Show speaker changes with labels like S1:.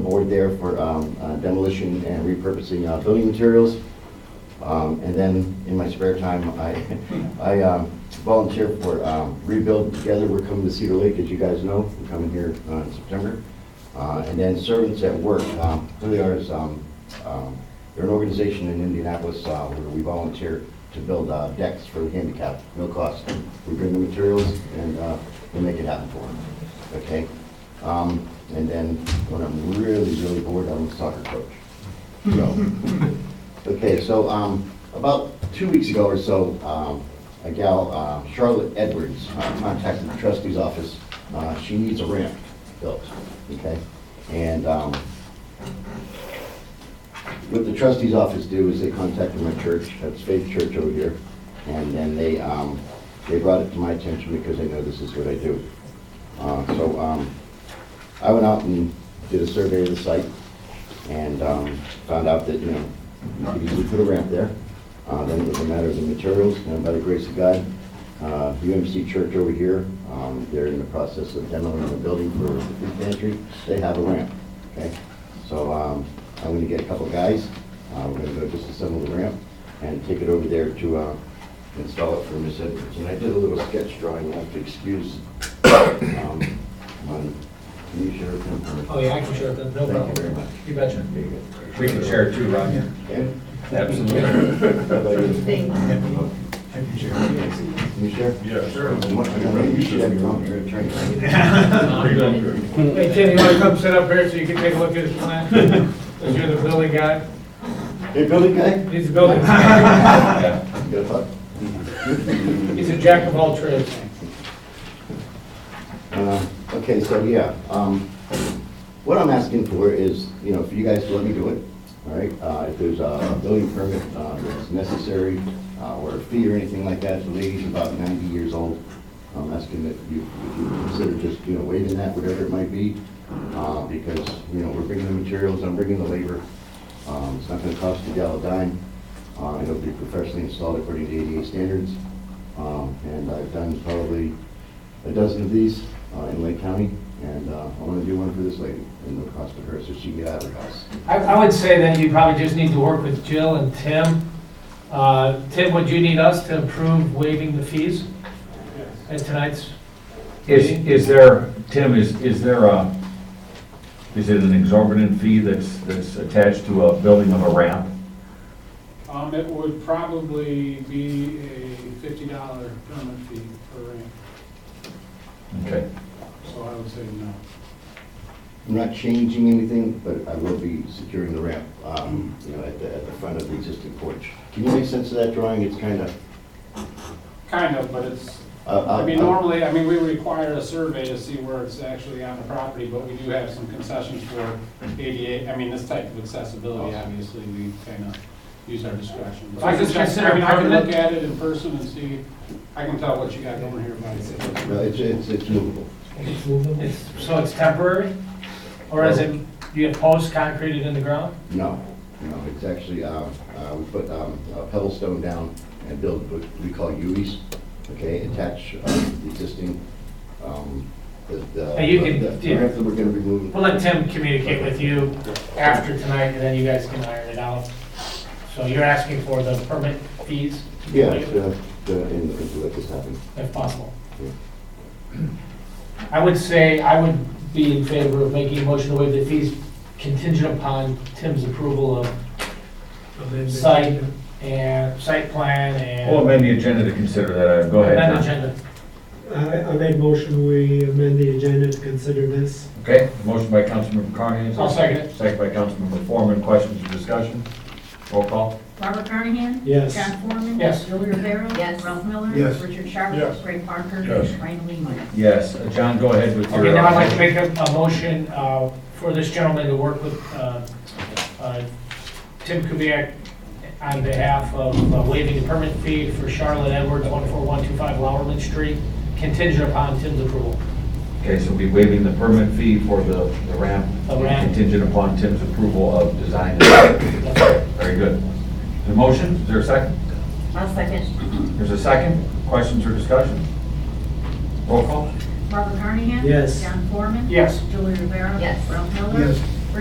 S1: board there for um, uh, demolition and repurposing uh, building materials. Um, And then in my spare time, I, I um, volunteer for um, Rebuild Together. We're coming to Cedar Lake, as you guys know. We're coming here uh, in September. Uh, And then Servants at Work, um, really ours, um, um, they're an organization in Indianapolis uh, where we volunteer to build uh, decks for the handicapped, no cost. We bring the materials and uh, we make it happen for them, okay? Um, And then when I'm really, really bored, I'm a soccer coach. So, Okay, so um, about two weeks ago or so, um, a gal, uh, Charlotte Edwards, uh, contacted the trustee's office. Uh, She needs a ramp built, okay? And um, what the trustee's office do is they contacted my church, that's Faith Church over here, and then they, um, they brought it to my attention because they know this is what I do. Uh, So um, I went out and did a survey of the site, and um, found out that, you know, you could easily put a ramp there. Uh, Then it was a matter of the materials, and by the grace of God, uh, UMC Church over here, um, they're in the process of demoing the building for the food pantry, they have a ramp, okay? So um, I'm gonna get a couple guys, uh, we're gonna go disassemble the ramp and take it over there to uh, install it for Miss Edwards. And I did a little sketch drawing, I have to excuse um, my, can you share it?
S2: Oh, yeah, I can share that, no
S1: Thank you very
S2: problem.
S1: much.
S2: You betcha.
S3: We can share too, Roger.
S1: Okay?
S3: Absolutely.
S1: You sure?
S4: Yeah, sure.
S1: You should have your own, you're an attorney.
S2: Hey, Tim, you wanna come sit up here so you can take a look at his plan? Cause you're the building guy,
S1: Hey, building guy?
S2: he's the building. guy.
S1: Good luck.
S2: He's a jack of all trades.
S1: Uh, Okay, so yeah, um, what I'm asking for is, you know, for you guys to let me do it, all right? Uh, If there's a building permit uh, that's necessary, uh, or a fee or anything like that, the lady's about 90 years old. I'm asking that you if you consider just, you know, waiving that, whatever it might be, uh, because, you know, we're bringing the materials, I'm bringing the labor. Um, It's not gonna cost a gal a dime. Uh, It'll be professionally installed according to ADA standards. Um, And I've done probably a dozen of these uh, in Lake County, and uh, I want to do one for this lady, and no cost to her, so she can get out of her house.
S2: I, I would say that you probably just need to work with Jill and Tim. Uh, Tim, would you need us to approve waiving the fees at tonight's?
S3: Is, is there, Tim, is, is there a, is it an exorbitant fee that's, that's attached to a building of a ramp?
S5: Um, it would probably be a fifty dollar permit fee per ramp,
S3: Okay.
S5: so I would say no.
S1: I'm not changing anything, but I will be securing the ramp, um, you know, at the, at the front of the existing porch. Can you make sense of that drawing? It's kind of, uh,
S5: Kind of, but it's,
S1: I
S5: I mean, normally, I mean, we require a survey to see where it's actually on the property, but we do have some concessions for ADA, I mean, this type of accessibility, obviously, we kind of use our discretion. But
S2: I just
S5: can-
S2: consider
S5: I mean, I can
S2: permanent-
S5: look at it in person and see, I can tell what you got going here, but
S1: uh, No, it's, it's, it's movable.
S2: It's, so it's temporary? Or is it, do you have posts concreted in the ground?
S1: No, no, it's actually, uh, uh, we put um, a pebble stone down and build what we call UEs, okay, attach uh, the existing, um, the, the.
S2: Now you can-
S1: the- The ramp that we're going to be moving.
S2: We'll let Tim communicate with you after tonight, and then you guys can iron it out. So you're asking for the permit fees?
S1: Yeah, the, the, and and to let this happen.
S2: If possible.
S1: Yeah.
S2: I would say, I would be in favor of making a motion to waive the fees contingent upon Tim's approval of site and, site plan
S3: Well,
S2: and
S3: amend the agenda to consider that, Uh, Oh, go ahead,
S2: amend
S3: John.
S2: agenda.
S6: I, I make motion, we amend the agenda to consider this.
S3: Okay, motion by Councilmember Carney.
S2: I'll second it.
S3: Second by Councilmember Foreman, questions or discussion? Roll call.
S7: Robert Carnahan?
S6: Yes.
S7: John Foreman?
S2: Yes.
S7: Julie Rivera? Yes. Ralph Miller?
S4: Yes.
S7: Richard Sharp?
S4: Yes.
S7: Ray Parker?
S4: Yes.
S7: Ryan Lehman?
S3: Yes, Uh, John, go ahead with your.
S2: Okay, now I'd like
S3: uh,
S2: to make a, a motion, uh, for this gentleman to work with, uh, uh, Tim Kubiac on behalf of uh, waiving the permit fee for Charlotte Edwards, one four one two five Lowerman Street, contingent upon Tim's approval.
S3: Okay, so we'll be waiving the permit fee for the, the ramp.
S2: The ramp.
S3: Contingent upon Tim's approval of design. Very good. The motion, is there a second?
S7: I'll second.
S3: There's a second? Questions or discussion? Roll call?
S7: Robert Carnahan?
S6: Yes.
S7: John Foreman?
S2: Yes.
S7: Julie Rivera? Yes. Ralph Miller?
S4: Yes.